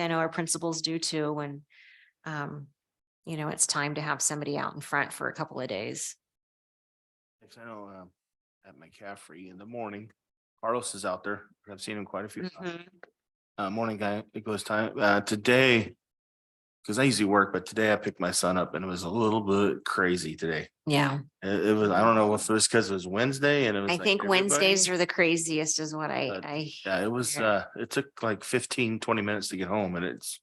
I know our principals do too, when, um, you know, it's time to have somebody out in front for a couple of days. If I know, um, at McCaffrey in the morning, Carlos is out there. I've seen him quite a few times. Mm-hmm. Uh, morning guy, it goes time, uh, today. Cause I usually work, but today I picked my son up and it was a little bit crazy today. Yeah, It, it was, I don't know if it was because it was Wednesday and it was. I like think Wednesdays everybody- are the craziest is what Uh, I, Yeah, it was, Yeah. uh, it took like 15, 20 minutes to get home and it's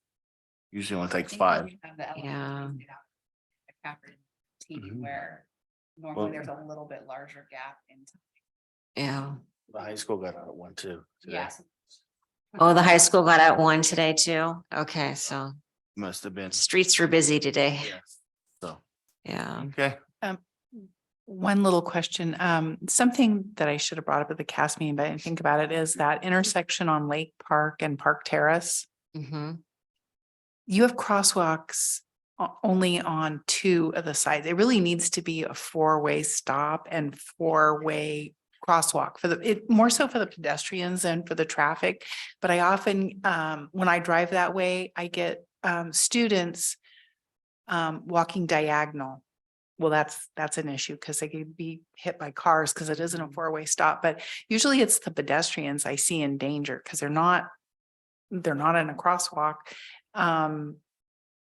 usually only I takes think five. we have the Yeah. elementary sit down at Packard T, Mhm. Where Well- normally there's a little bit larger gap in. time. I, yeah. The high school got out at one too. today. Yes. Oh, the high school got out one today too. Okay, so Must have been. streets were busy today. Yeah. So, Yeah. okay. One little question, um, something that I should have brought up at the cast meeting, but I didn't think about it, is that intersection on Lake Park and Park Terrace. hmm You have crosswalks o- only on two of the sides. It really needs to be a four-way stop and four-way crosswalk for the, it, more so for the pedestrians than for the traffic. But I often, um, when I drive that way, I get, um, students um, walking diagonal. Well, that's, that's an issue because they could be hit by cars because it isn't a four-way stop, but usually it's the pedestrians I see in danger because they're not, they're not in a crosswalk. Um,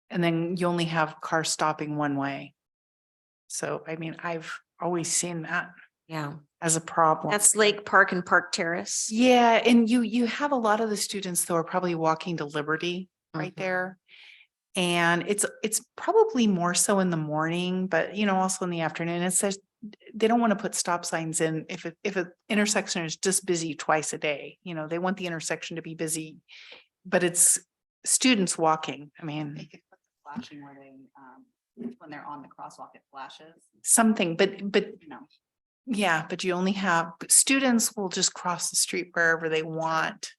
and then you only have cars stopping one way. So, I mean, I've always seen that Yeah, as a problem. that's Lake Park and Park Terrace. Yeah, and you, you have a lot of the students though are probably walking to Liberty right Mhm. there. And it's, it's probably more so in the morning, but you know, also in the afternoon, it says they don't want to put stop signs in if, it- if an intersection is just busy twice a day, you know, they want the intersection to be busy. But it's students walking. I They mean, could put the Flashing where they, um, when they're on the crosswalk, it flashes, something, but, but you know. yeah, but you only have, students will just cross the street wherever they want.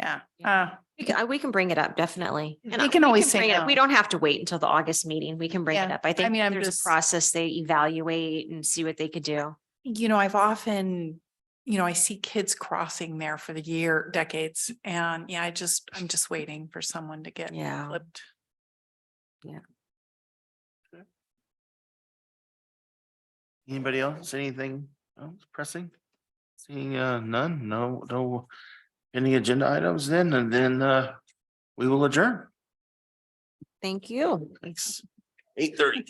Yeah, Yeah. uh, We can, I- we can bring it up, definitely. And They I- can we always say bring it up. We no. don't have to wait until the August meeting. We can bring it Yeah, up. I think mean, I'm there's a just- process they evaluate and see what they could do. you know, I've often, you know, I see kids crossing there for the year, decades, and yeah, I just, I'm just waiting for someone to get Yeah. flipped. Anybody else? Anything else pressing? Seeing uh none, no, no, any agenda items then, and then uh we will adjourn. Thank you. Thanks. Eight thirty.